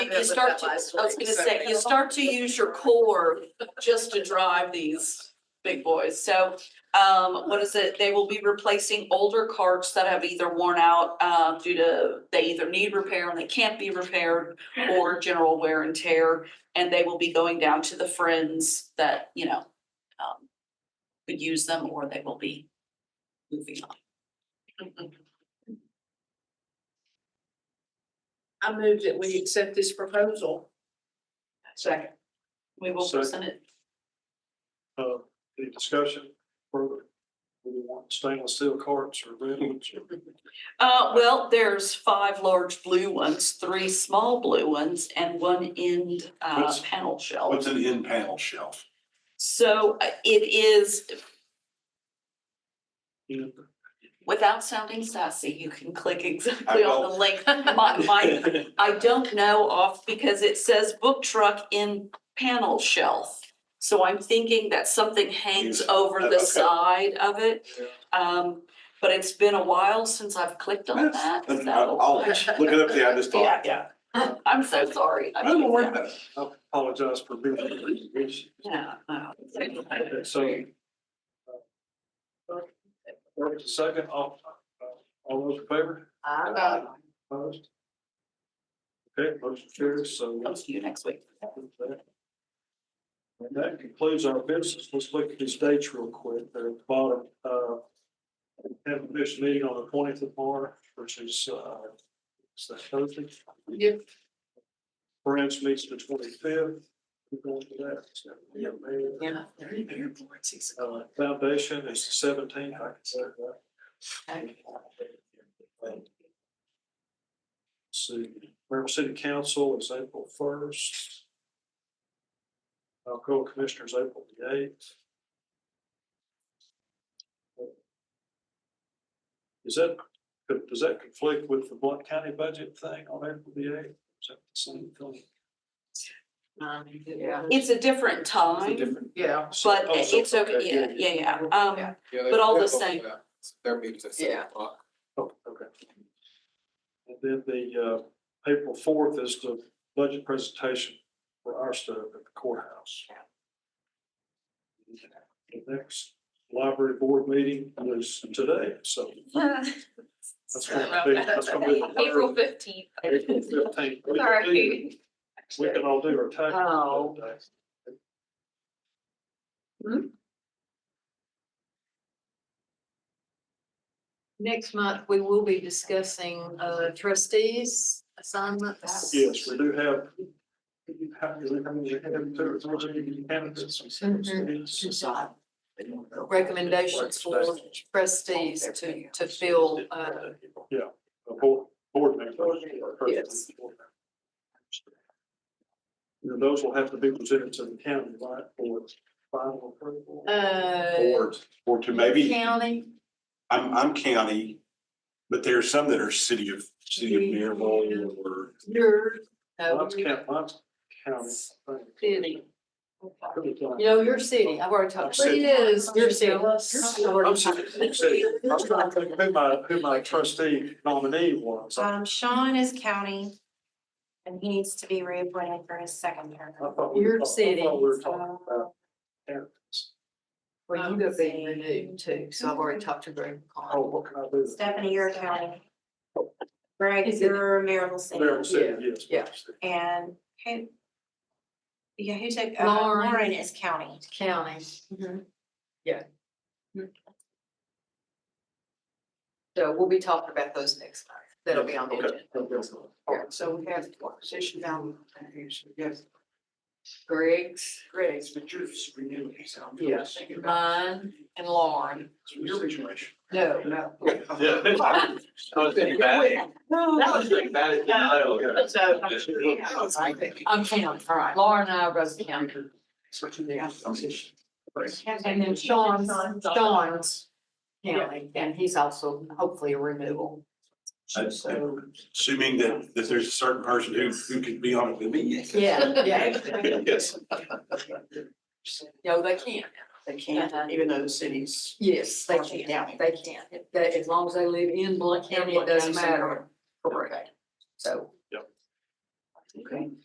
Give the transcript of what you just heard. you start to, I was gonna say, you start to use your core just to drive these big boys. So, um, what is it? They will be replacing older carts that have either worn out, uh, due to, they either need repair and they can't be repaired or general wear and tear. And they will be going down to the friends that, you know, um, could use them or they will be moving on. I move that we accept this proposal. Second. We will Second. present it. Uh, any discussion further? Do we want stainless steel carts or rims or? Uh, well, there's five large blue ones, three small blue ones, and one end, uh, What's- panel shelf. What's an in panel shelf? So uh, it is, you without sounding sassy, you can click exactly I on the link. My, my, know? I don't know off because it says book truck in panel shelf. So I'm thinking that something hangs Use- over the okay. side of it. Yeah. Um, but it's been a while since I've clicked on that. That's- so- I'll look it up there, I just Yeah, thought. yeah. I'm so sorry. I I'm don't know where sorry. that- I apologize for being. Okay, Yeah. uh, wow. So. uh, First and second, all, all those in favor? I Opposed? Okay, motion carries, so. Comes to you next week. And that concludes our business. Let's look at these dates real quick. They're at the bottom. Uh, Have a commission meeting on the twentieth of March, which is, uh, is that Thursday? Yep. Branch meets the twenty-fifth. We're going to that. It's gonna be a mayor. Yeah. Uh, Foundation is the seventeenth. I can say that. See, Maryville City Council is April first. Alcoa Commissioners, April the eighth. Is that, could- does that conflict with the Blunt County budget thing on April the eighth? Is that the same thing? Yeah. It's a different time, Yeah. but Oh, so- it's okay, yeah, yeah, yeah, yeah. Um, Yeah. but all the same. Their meetings at seven Yeah. o'clock. Oh, okay. And then the uh, April fourth is the budget presentation for our stuff at the courthouse. The next library board meeting is today, so that's gonna be, that's gonna be. the April third, fifteenth. April fifteenth. We can do- Sorry. we can all do our taxes. Oh. that day. Next month, we will be discussing uh, trustees assignments. Yes, we do have. How how many, how many, two or three candidates? Recommendations for trustees to, to fill, uh, Yeah, a board, board member. Yes. And those will have to be presented to the county, right, for final approval? uh, Or, or to maybe, county. I'm, I'm county, but there are some that are city of, city of Maryville or Your. uh, Lots count, lots county. I think. City. Really don't. You know, your city, I've already talked. about City. It is, your city. I'm sorry, I'm sorry. I was trying to think who my, who my trustee nominee was. I Um, Sean is county. And he needs to be reappointed for his second term. thought we were Your talk- I city, thought we were talking uh, about So, candidates. Well, you have been renewed too, so I've already talked to Greg Oh, McCall. what can I do? Stephanie, you're county. Greg, you're Maryville City. Maryville City, yes. Yeah. And who? Yeah, who took, uh, Lauren. Lauren is county. County. So we'll be talking about those next time. That'll be on the Okay. agenda. Yeah, so we have one position down. Yes. Greg's. Greg's, but yours renewed, so. Yes. Mine and Lauren. Uh, Your situation. No, no. Yeah. I was thinking about it. I was thinking about it. No. So, I think. I'm counting, all right. Lauren uh, and I are both counting. And then Sean's, Sean's counting, and he's also hopefully a renewal. So- Assuming that, that there's a certain person who, who could be on it with me. yes. Yeah, yeah. Yes. No, they can't. Uh-huh. They can't, even though the city's. Yes, they can. County. They can. If they- as long as they live in Blunt County, it doesn't matter. Correct. So.